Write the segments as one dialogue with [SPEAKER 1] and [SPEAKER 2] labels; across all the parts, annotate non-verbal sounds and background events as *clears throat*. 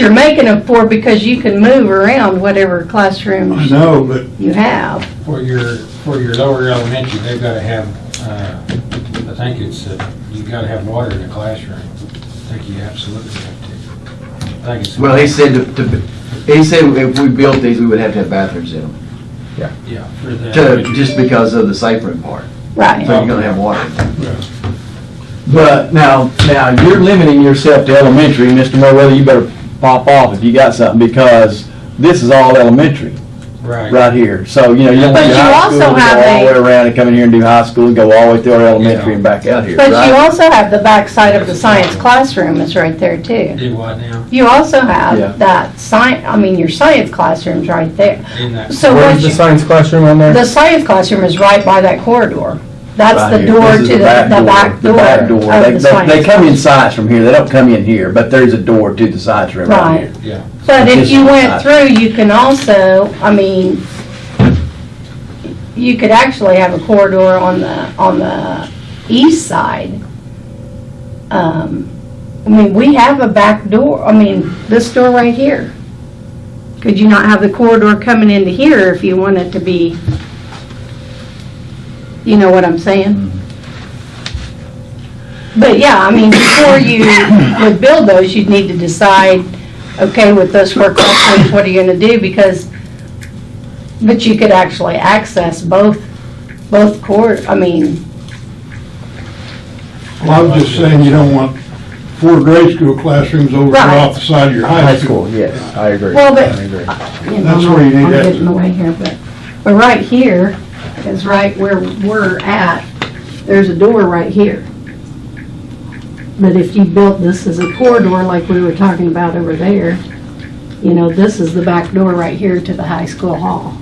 [SPEAKER 1] you're making them for because you can move around whatever
[SPEAKER 2] I
[SPEAKER 1] classrooms
[SPEAKER 2] know, but
[SPEAKER 1] you have.
[SPEAKER 3] For your, for your lower elementary, they've got to have, uh, I think it's, uh, you've got to have water in the classroom. I think you absolutely have to. I think it's.
[SPEAKER 4] Well, he said to, to- he said if we built these, we would have to have bathrooms in them,
[SPEAKER 3] Yeah, for the.
[SPEAKER 4] to, just because of the safe room part. So
[SPEAKER 1] Right.
[SPEAKER 4] you're gonna have water.
[SPEAKER 5] But now, now you're limiting yourself to elementary, Mr. Meriwether, you better pop off if you got something, because this is all elementary
[SPEAKER 3] Right.
[SPEAKER 5] right here. So, you know, you don't
[SPEAKER 1] But
[SPEAKER 5] do
[SPEAKER 1] you
[SPEAKER 5] high
[SPEAKER 1] also
[SPEAKER 5] school, and go
[SPEAKER 1] have
[SPEAKER 5] all the way
[SPEAKER 1] a-
[SPEAKER 5] around and come in here and do high school and go all the way through our elementary and back out here,
[SPEAKER 1] But you
[SPEAKER 5] right?
[SPEAKER 1] also have the backside of the science classroom is right there too.
[SPEAKER 3] Do what now?
[SPEAKER 1] You also
[SPEAKER 5] Yeah.
[SPEAKER 1] have that science, I mean, your science classroom's right there.
[SPEAKER 3] In that,
[SPEAKER 1] So what you,
[SPEAKER 5] science classroom on
[SPEAKER 1] the science classroom is right by that corridor. That's
[SPEAKER 5] Right
[SPEAKER 1] the
[SPEAKER 5] here.
[SPEAKER 1] door
[SPEAKER 5] This
[SPEAKER 1] to
[SPEAKER 5] is
[SPEAKER 1] the, the back door
[SPEAKER 5] The back door. They-
[SPEAKER 1] of the
[SPEAKER 5] they- They
[SPEAKER 1] science.
[SPEAKER 5] come in science from here, they don't come in here, but there's a door to the science room right
[SPEAKER 1] Right.
[SPEAKER 5] here.
[SPEAKER 3] yeah.
[SPEAKER 1] But if you
[SPEAKER 5] Additional
[SPEAKER 1] went
[SPEAKER 5] side.
[SPEAKER 1] through, you can also, I mean, you could actually have a corridor on the, on the east side. Um, I mean, we have a back door, I mean, this door right here. Could you not have the corridor coming into here if you want it to be, you know what I'm saying? But yeah, I mean, before you would build those, you'd need to decide okay with those four classrooms, what are you gonna do? Because, but you could actually access both, both court, I mean,
[SPEAKER 2] well, I was just saying you don't want four grade school classrooms over
[SPEAKER 1] Right.
[SPEAKER 2] off the side of your high school.
[SPEAKER 5] yes, I agree.
[SPEAKER 1] Well, but-
[SPEAKER 5] I agree.
[SPEAKER 1] you know,
[SPEAKER 2] That's where you need
[SPEAKER 1] I'm
[SPEAKER 2] that.
[SPEAKER 1] getting away here, but, but right here is right where we're at. There's a door right here. But if you built this as a corridor like we were talking about over there, you know, this is the back door right here to the high school hall.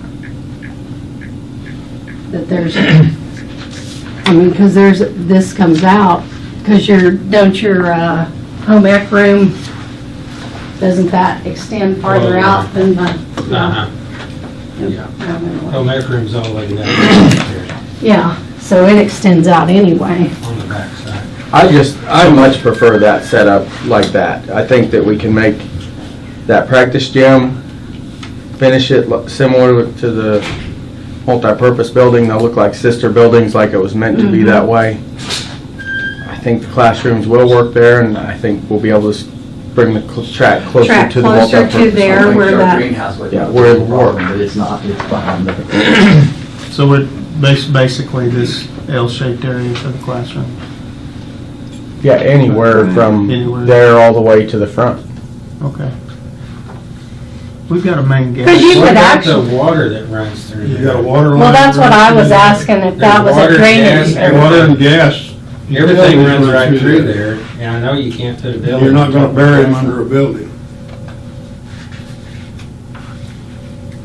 [SPEAKER 1] That there's, I mean, because there's, this comes out, because your, don't your, uh, home ec room, doesn't that extend farther out than the?
[SPEAKER 3] Uh-huh. Yeah.
[SPEAKER 1] I don't remember what-
[SPEAKER 3] Well, that room's all the way down there
[SPEAKER 1] Yeah, so it extends out anyway.
[SPEAKER 3] on the backside.
[SPEAKER 4] I just, I much prefer that setup like that. I think that we can make that practice gym, finish it lo- similar to the multi-purpose building. They'll look like sister buildings, like it was meant to be that way. I think the classrooms will work there, and I think we'll be able to s- bring the cl- track closer
[SPEAKER 1] Track
[SPEAKER 4] to the
[SPEAKER 1] closer to
[SPEAKER 4] multi-purpose.
[SPEAKER 1] there
[SPEAKER 4] building.
[SPEAKER 1] where that-
[SPEAKER 4] greenhouse would be Yeah, where it would work.
[SPEAKER 5] But it's not, it's behind the.
[SPEAKER 6] So it, bas- basically this L-shaped area for the classroom,
[SPEAKER 4] Yeah, anywhere
[SPEAKER 6] Anywhere.
[SPEAKER 4] from there all the way to the front.
[SPEAKER 6] okay. We've got a main gate.
[SPEAKER 1] 'Cause you
[SPEAKER 3] What
[SPEAKER 1] could
[SPEAKER 3] about the
[SPEAKER 1] actually,
[SPEAKER 3] water that runs through
[SPEAKER 2] You got a
[SPEAKER 3] there?
[SPEAKER 2] water line.
[SPEAKER 1] well, that's what I was asking, if that was a
[SPEAKER 3] There's water,
[SPEAKER 1] drainage.
[SPEAKER 3] gas,
[SPEAKER 2] And
[SPEAKER 1] area.
[SPEAKER 2] Water and gas,
[SPEAKER 3] Everything runs right through there, and I know you can't put a building.
[SPEAKER 2] you're not gonna bury them under a building.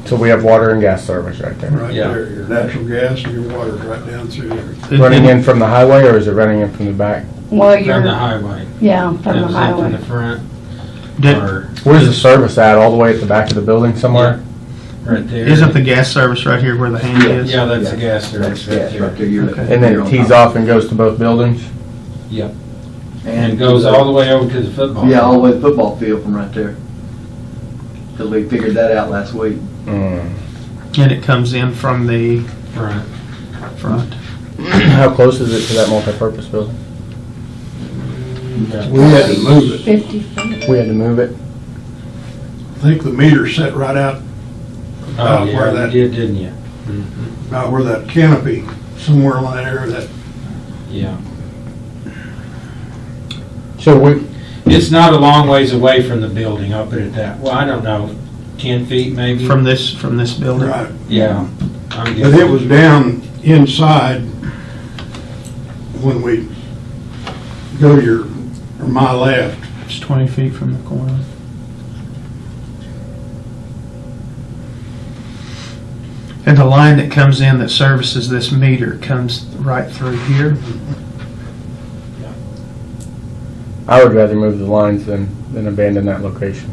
[SPEAKER 4] So we have water and gas service right there.
[SPEAKER 2] Right
[SPEAKER 3] Yeah.
[SPEAKER 2] there, your natural gas and your water's right down through there.
[SPEAKER 6] It- it-
[SPEAKER 4] in from the highway, or is it running in from the back?
[SPEAKER 1] Well,
[SPEAKER 3] From the
[SPEAKER 1] you're,
[SPEAKER 3] highway.
[SPEAKER 1] yeah, from
[SPEAKER 3] That
[SPEAKER 1] the
[SPEAKER 3] was up in
[SPEAKER 1] highway.
[SPEAKER 3] the front,
[SPEAKER 6] that-
[SPEAKER 3] or
[SPEAKER 4] Where's the service at, all the way at the back of the building somewhere?
[SPEAKER 3] right there.
[SPEAKER 6] Isn't the gas service right here where the hand is?
[SPEAKER 3] Yeah, that's the gas service right there.
[SPEAKER 6] Okay.
[SPEAKER 4] And then it tees off and goes to both buildings?
[SPEAKER 3] And it goes all the way over to the football.
[SPEAKER 5] Yeah, all the way to the football field from right there. Because we figured that out last week.
[SPEAKER 4] Hmm.
[SPEAKER 6] And it comes in from the
[SPEAKER 3] Front.
[SPEAKER 6] front.
[SPEAKER 4] *clears throat* How close is it to that multi-purpose building?
[SPEAKER 2] We
[SPEAKER 3] Oh,
[SPEAKER 2] had to move it.
[SPEAKER 1] Fifty feet.
[SPEAKER 4] We had to move it.
[SPEAKER 2] I think the meter set right out,
[SPEAKER 3] Oh,
[SPEAKER 2] Out where
[SPEAKER 3] yeah,
[SPEAKER 2] that-
[SPEAKER 3] you did, didn't you?
[SPEAKER 2] about where that canopy, somewhere along there, that,
[SPEAKER 3] Yeah.
[SPEAKER 4] So we,
[SPEAKER 3] It's not a long ways away from the building, I'll put it that, well, I don't know, ten feet maybe?
[SPEAKER 6] From this, from this building?
[SPEAKER 2] right.
[SPEAKER 3] Yeah. I'm
[SPEAKER 2] But it
[SPEAKER 3] guessing.
[SPEAKER 2] was down inside when we go to your, or my left.
[SPEAKER 6] It's 20 feet from the corner. And the line that comes in that services this meter comes right through here?
[SPEAKER 4] I would rather move the lines than, than abandon that location.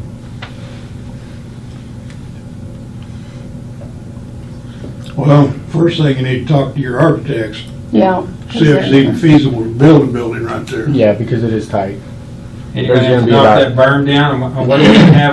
[SPEAKER 2] Well, first thing you need to talk to your architects,
[SPEAKER 1] Yeah.
[SPEAKER 2] see if it's even feasible to build a building right there.
[SPEAKER 4] Yeah, because it is tight.
[SPEAKER 3] And you're gonna
[SPEAKER 4] There's
[SPEAKER 3] have to
[SPEAKER 4] gonna
[SPEAKER 3] knock
[SPEAKER 4] be
[SPEAKER 3] that berm down, and what- and what do we have